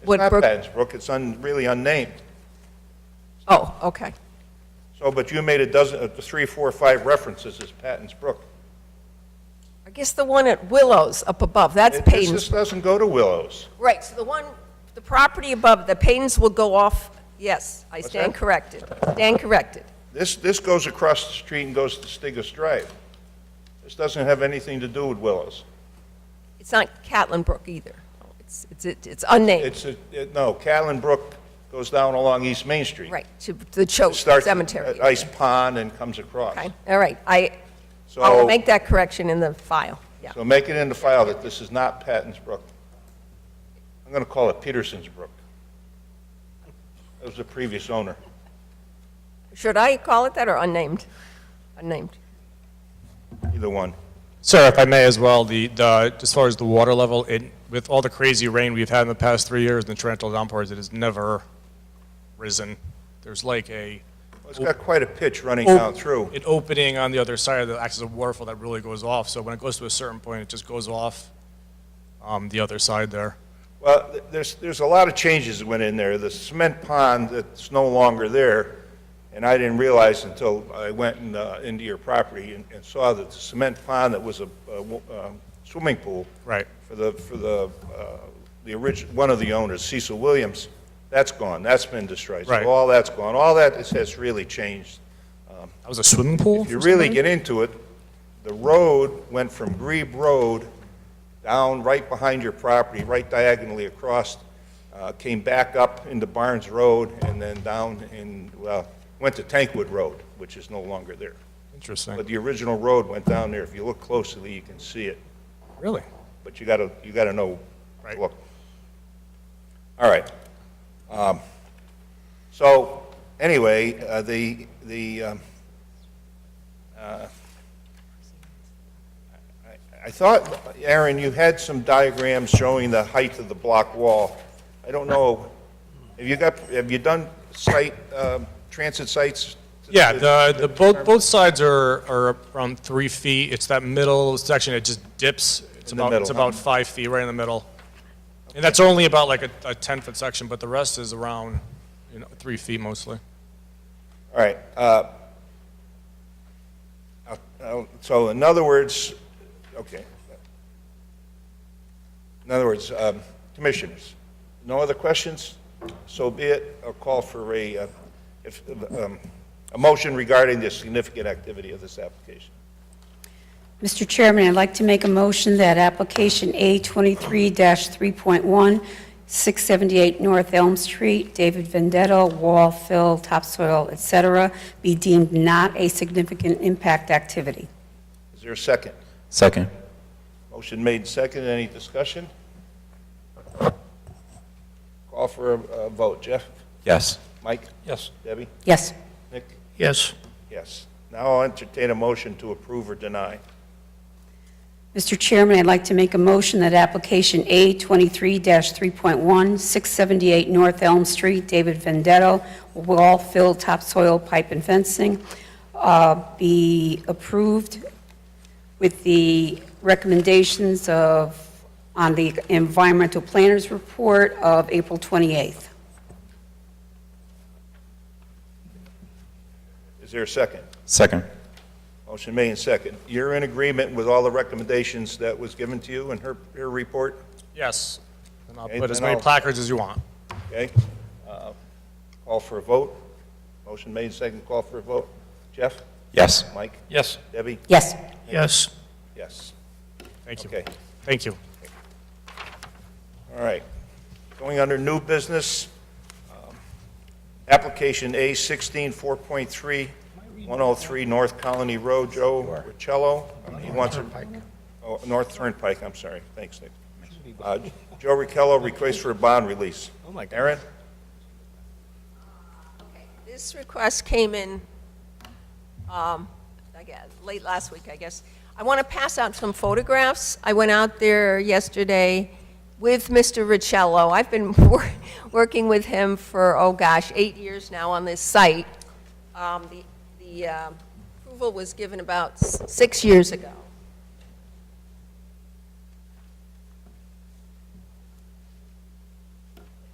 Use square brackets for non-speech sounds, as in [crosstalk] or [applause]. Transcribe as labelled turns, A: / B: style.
A: It's not
B: Woodbrook-
A: Pattons Brook, it's un- really unnamed.
B: Oh, okay.
A: So, but you made a dozen, uh, three, four, five references as Pattons Brook.
B: I guess the one at Willows up above, that's
A: It- This
B: Payton's.
A: just doesn't go to Willows.
B: Right, so the one, the property above, the Payton's will go off, yes, I stand
A: that?
B: corrected. Stand corrected.
A: This, this goes across the street and goes to Stigus Drive. This doesn't have anything to do with Willows.
B: It's not Catlin Brook either. It's, it's, it's unnamed,
A: It's, a- it- no, Catlin Brook goes down along East Main Street.
B: right, to the Choate
A: Starts
B: Cemetery.
A: at Ice Pond and comes across.
B: Okay, all right, I, I will
A: So,
B: make that correction in the file, yeah.
A: so make it in the file that this is not Pattons Brook. I'm going to call it Peterson's Brook. That was the previous owner.
B: Should I call it that or unnamed? Unnamed.
A: Either one.
C: Sir, if I may as well, the, the, as far as the water level, it, with all the crazy rain we've had in the past three years and the torrential downpours, it has never risen. There's like a,
A: Well, It's got quite a pitch running
C: Oh.
A: down through.
C: an opening on the other side that acts as a waterfall that really goes off. So when it goes to a certain point, it just goes off, um, the other side there.
A: Well, th- there's, there's a lot of changes that went in there. The cement pond that's no longer there, and I didn't realize until I went in, uh, into your property and, and saw that the cement pond that was a, a w- um, swimming pool.
C: Right.
A: For the, for the, uh, the orig, one of the owners, Cecil Williams, that's gone. That's been destroyed.
C: Right.
A: So all that's gone. All that is- has really changed.
C: That was a swimming pool?
A: If you
C: for some
A: really
C: reason?
A: get into it, the road went from Grebe Road down right behind your property, right diagonally across, uh, came back up into Barnes Road, and then down in, well, went to Tankwood Road, which is no longer there. But
C: Interesting.
A: the original road went down there. If you look closely, you can see it,
C: Really?
A: but you gotta, you gotta know.
C: Right.
A: Look. All right. Um, So, anyway, uh, the, the, um, uh, I thought, Aaron, you had some diagrams showing the height of the block wall. I don't know, have you got, have you done site, um, transit sites?
C: Yeah, the, the, both, both sides are, are around three feet. It's that middle section, it just dips. It's
A: In the
C: about, it's
A: middle.
C: about five feet, right in the middle. And that's only about like a, a ten-foot section, but the rest is around, you know, three feet mostly.
A: All right. uh, uh, uh, So in other words, okay. In other words, um, commissioners, no other questions? So be it, I'll call for a, uh, if, um, a motion regarding the significant activity of this application.
D: Mr. Chairman, I'd like to make a motion that application A23-3.1, 678 North Elm Street, David Vendetta, wall fill, topsoil, et cetera, be deemed not a significant impact activity.
A: Is there a second?
E: Second.
A: Motion made second, any discussion? Call for a a vote. Jeff?
E: Yes.
A: Mike? Yes. Debbie?
D: Yes.
A: Nick?
F: Yes.
A: Yes. Now I'll entertain a motion to approve or deny.
D: Mr. Chairman, I'd like to make a motion that application A23-3.1, 678 North Elm Street, David Vendetto, wall fill, topsoil, pipe and fencing, uh, be approved with the recommendations of, on the environmental planners report of April 28th.
A: Is there a second?
E: Second.
A: Motion made and second. You're in agreement with all the recommendations that was given to you in her, her report,
C: Yes. And I'll
A: Okay,
C: put as
A: then
C: many
A: I'll-
C: placards as you want.
A: okay? Uh, Call for a vote. Motion made and second, call for a vote. Jeff?
E: Yes.
A: Mike?
F: Yes.
A: Debbie?
D: Yes.
F: Yes.
A: Yes.
C: Thank you.
A: Okay.
C: Thank you.
A: All right. Going under new business, um, application A 16 4.3, 103 North Colony Road, Joe Riccello. He wants a... Oh, North Turnpike, I'm sorry. Thanks, Nick. Uh, Joe Riccello requests for a bond release. Oh, my God. Aaron?
B: This request came in, um, I guess, late last week, I guess. I want to pass out some photographs. I went out there yesterday with Mr. Riccello. I've been [laughs] wor- working with him for, oh gosh, eight years now on this uh, site. Um, The the, um, approval was given about s- six years ago.